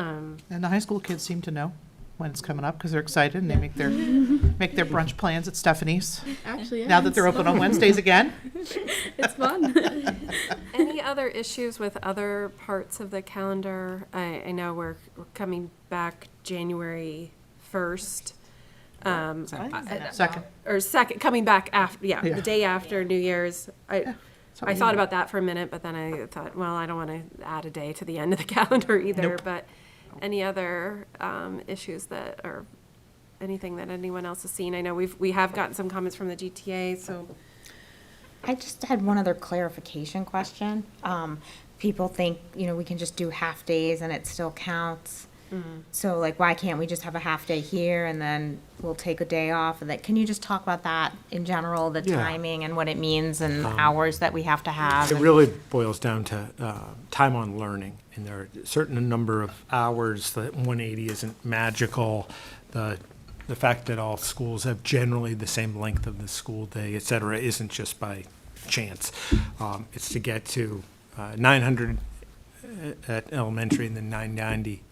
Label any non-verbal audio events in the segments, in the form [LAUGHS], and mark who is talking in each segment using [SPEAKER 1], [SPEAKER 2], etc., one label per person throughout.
[SPEAKER 1] Um,
[SPEAKER 2] And the high school kids seem to know when it's coming up because they're excited and they make
[SPEAKER 3] [LAUGHS]
[SPEAKER 2] their, make their brunch plans at Stephanie's.
[SPEAKER 4] Actually, yeah.
[SPEAKER 2] Now
[SPEAKER 4] [LAUGHS]
[SPEAKER 2] that they're open on Wednesdays
[SPEAKER 3] [LAUGHS]
[SPEAKER 2] again.
[SPEAKER 4] It's fun.
[SPEAKER 1] Any other issues with other parts of the calendar? I, I know we're, we're coming back January first. Um,
[SPEAKER 2] Second.
[SPEAKER 1] or second, coming back after, yeah,
[SPEAKER 2] Yeah.
[SPEAKER 1] the day after New Year's. I, I thought about that for a minute, but then I thought, well, I don't want to add a day to the end of the [LAUGHS] calendar either.
[SPEAKER 2] Nope.
[SPEAKER 1] But any other um, issues that, or anything that anyone else has seen? I know we've, we have gotten some comments from the GTA, so
[SPEAKER 3] I just had one other clarification question. Um, people think, you know, we can just do half days and it still counts. So like, why can't we just have a half day here and then we'll take a day off? And that, can you just talk about that in general, the
[SPEAKER 5] Yeah. Um,
[SPEAKER 3] timing and what it means and hours that we have to have?
[SPEAKER 5] It
[SPEAKER 3] and-
[SPEAKER 5] really boils down to uh, time on learning, and there are a certain number of hours that 180 isn't magical. The the fact that all schools have generally the same length of the school day, et cetera, isn't just by chance. Um, it's to get to uh, 900 at elementary and then 990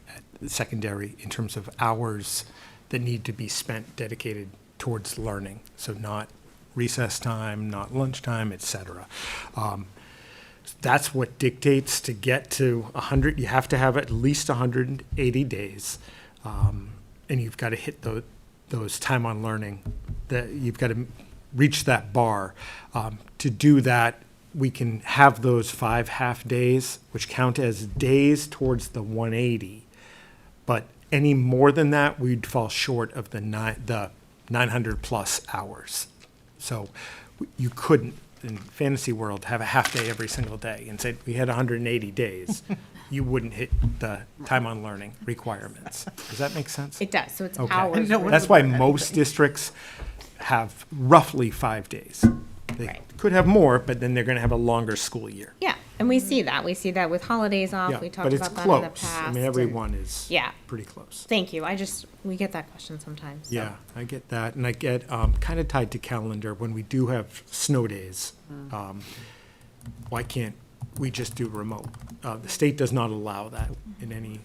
[SPEAKER 5] at secondary in terms of hours that need to be spent dedicated towards learning. So not recess time, not lunchtime, et cetera. Um, that's what dictates to get to 100. You have to have at least 180 days, um, and you've got to hit those those time on learning. That you've got to reach that bar. Um, to do that, we can have those five half days, which count as days towards the 180. But any more than that, we'd fall short of the nine, the 900 plus hours. So w- you couldn't, in fantasy world, have a half day every single day and say, we had
[SPEAKER 3] [LAUGHS]
[SPEAKER 5] 180 days. You wouldn't hit the time on learning requirements. Does that make sense?
[SPEAKER 3] It does, so it's
[SPEAKER 5] Okay.
[SPEAKER 3] hours.
[SPEAKER 2] No,
[SPEAKER 3] worth.
[SPEAKER 5] That's why most districts have roughly five days. They
[SPEAKER 3] Right.
[SPEAKER 5] could have more, but then they're going to have a longer school year.
[SPEAKER 3] Yeah, and we see that. We see that with holidays
[SPEAKER 5] Yeah,
[SPEAKER 3] off. Um, We talked
[SPEAKER 5] but it's
[SPEAKER 3] about that in the
[SPEAKER 5] close.
[SPEAKER 3] past.
[SPEAKER 5] I mean,
[SPEAKER 3] and-
[SPEAKER 5] everyone is
[SPEAKER 3] Yeah.
[SPEAKER 5] pretty close.
[SPEAKER 3] Thank you. I just, we get that question sometimes. so-
[SPEAKER 5] Yeah, I get that, and I get, um, kind of tied to calendar, when we do have snow days,
[SPEAKER 3] Mm.
[SPEAKER 5] um, why can't we just do remote? Uh, the state does not allow that in any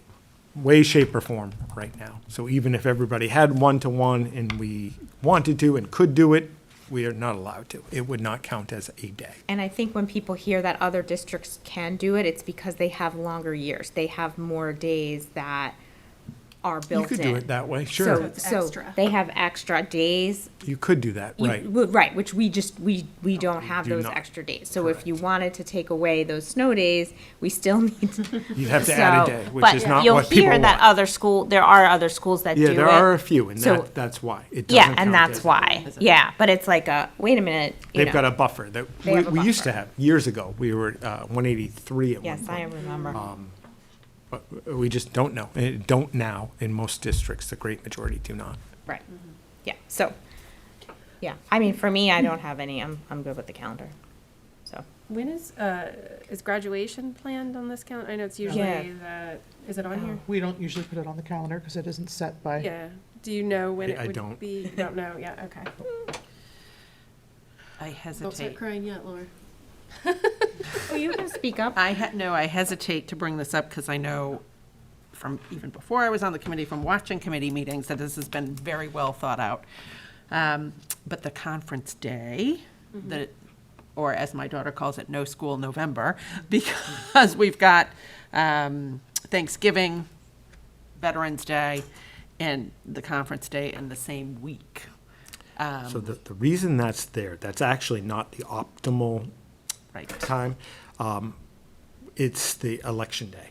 [SPEAKER 5] way, shape, or form right now. So even if everybody had one-to-one and we wanted to and could do it, we are not allowed to. It would not count as a day.
[SPEAKER 3] And I think when people hear that other districts can do it, it's because they have longer years. They have more days that are built in.
[SPEAKER 5] You could do it that way, sure.
[SPEAKER 3] So, so they have extra days.
[SPEAKER 5] You could do that,
[SPEAKER 3] You-
[SPEAKER 5] right.
[SPEAKER 3] well, Right, which we just, we, we don't have
[SPEAKER 5] do
[SPEAKER 3] those
[SPEAKER 5] not.
[SPEAKER 3] extra days. So if you wanted to take away those snow days, we still [LAUGHS] need to.
[SPEAKER 5] You'd have to add
[SPEAKER 3] So-
[SPEAKER 5] a day, which is not what
[SPEAKER 3] But you'll
[SPEAKER 5] people
[SPEAKER 3] hear that
[SPEAKER 5] want.
[SPEAKER 3] other school, there are other schools that do it.
[SPEAKER 5] Yeah, there are a few, and
[SPEAKER 3] So-
[SPEAKER 5] that, that's why. It
[SPEAKER 3] Yeah,
[SPEAKER 5] doesn't
[SPEAKER 3] and
[SPEAKER 5] count
[SPEAKER 3] that's
[SPEAKER 5] as-
[SPEAKER 3] why. Yeah, but it's like a, wait a minute, you
[SPEAKER 5] They've got
[SPEAKER 3] know.
[SPEAKER 5] a buffer that
[SPEAKER 3] They
[SPEAKER 5] we,
[SPEAKER 3] have a
[SPEAKER 5] we used to
[SPEAKER 3] buffer.
[SPEAKER 5] have years ago. We were uh, 183 at one
[SPEAKER 3] Yes, I
[SPEAKER 5] point.
[SPEAKER 3] remember.
[SPEAKER 5] But we just don't know. Eh, don't now in most districts. The great majority do not.
[SPEAKER 3] Right. Yeah, so, yeah, I mean, for me, I don't have any, I'm, I'm good with the calendar, so.
[SPEAKER 1] When is, uh, is graduation planned on this calendar? I know it's usually the, is it on here?
[SPEAKER 2] We don't usually put it on the calendar because it isn't set
[SPEAKER 6] Oh.
[SPEAKER 2] by,
[SPEAKER 1] Yeah. Do you know when
[SPEAKER 5] I- I
[SPEAKER 1] it would
[SPEAKER 5] don't.
[SPEAKER 1] be? You don't know, yeah, okay.
[SPEAKER 6] I
[SPEAKER 4] Don't start
[SPEAKER 6] hesitate.
[SPEAKER 4] crying yet, Laura.
[SPEAKER 3] Well, you can speak up.
[SPEAKER 6] I had, no, I hesitate to bring this up because I know from even before I was on the committee, from watching committee meetings, that this has been very well thought out. Um, But the conference day, the, or as my daughter calls it, no school November, [LAUGHS] because we've got um, Thanksgiving, Veterans Day, and the conference day in the same week. Um,
[SPEAKER 5] so the, the reason that's there, that's actually not the optimal
[SPEAKER 6] Right.
[SPEAKER 5] time. Um, it's the election day.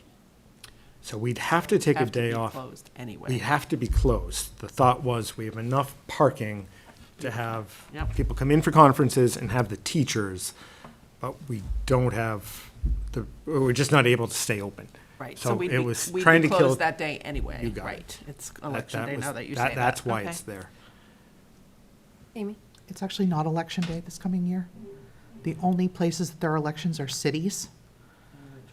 [SPEAKER 5] So we'd have to take
[SPEAKER 6] Have
[SPEAKER 5] a
[SPEAKER 6] to
[SPEAKER 5] day
[SPEAKER 6] be
[SPEAKER 5] off.
[SPEAKER 6] Closed anyway.
[SPEAKER 5] We have to be closed. The thought was, we have enough parking to have
[SPEAKER 6] Yep.
[SPEAKER 5] people come in for conferences and have the teachers, but we don't have the, or we're just not able to stay open.
[SPEAKER 6] Right, so
[SPEAKER 5] So
[SPEAKER 6] we'd
[SPEAKER 5] it
[SPEAKER 6] be,
[SPEAKER 5] was
[SPEAKER 6] we'd
[SPEAKER 5] trying
[SPEAKER 6] be
[SPEAKER 5] to kill.
[SPEAKER 6] closed that day anyway.
[SPEAKER 5] You got it.
[SPEAKER 6] Right, it's
[SPEAKER 5] that-
[SPEAKER 6] election
[SPEAKER 5] that
[SPEAKER 6] day
[SPEAKER 5] was-
[SPEAKER 6] now that you say that.
[SPEAKER 5] That's why
[SPEAKER 6] Okay.
[SPEAKER 5] it's there.
[SPEAKER 1] Amy?
[SPEAKER 2] it's actually not election day this coming year. The only places that there are elections are cities.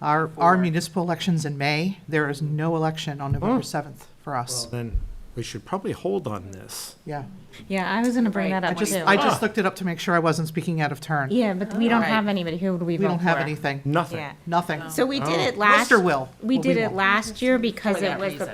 [SPEAKER 2] Our, our municipal elections in May, there is no election on November 7th for us.
[SPEAKER 5] Then we should probably hold on this.
[SPEAKER 2] Yeah.
[SPEAKER 3] Yeah, I was gonna bring
[SPEAKER 1] Right.
[SPEAKER 3] that
[SPEAKER 1] I
[SPEAKER 3] up
[SPEAKER 2] Just,
[SPEAKER 3] too.
[SPEAKER 2] I just looked it up to make sure I wasn't speaking out of turn.
[SPEAKER 3] Yeah, but we don't
[SPEAKER 6] Right.
[SPEAKER 3] have anybody, who would we
[SPEAKER 2] We
[SPEAKER 3] vote for?
[SPEAKER 2] don't have anything,
[SPEAKER 5] Nothing.
[SPEAKER 3] Yeah.
[SPEAKER 2] nothing.
[SPEAKER 3] So we did
[SPEAKER 5] Oh.
[SPEAKER 3] it last.
[SPEAKER 2] Worcester will, but
[SPEAKER 3] We
[SPEAKER 2] we
[SPEAKER 3] did it
[SPEAKER 2] won't.
[SPEAKER 3] last year because
[SPEAKER 6] For
[SPEAKER 3] it
[SPEAKER 6] that
[SPEAKER 3] was the
[SPEAKER 6] reason.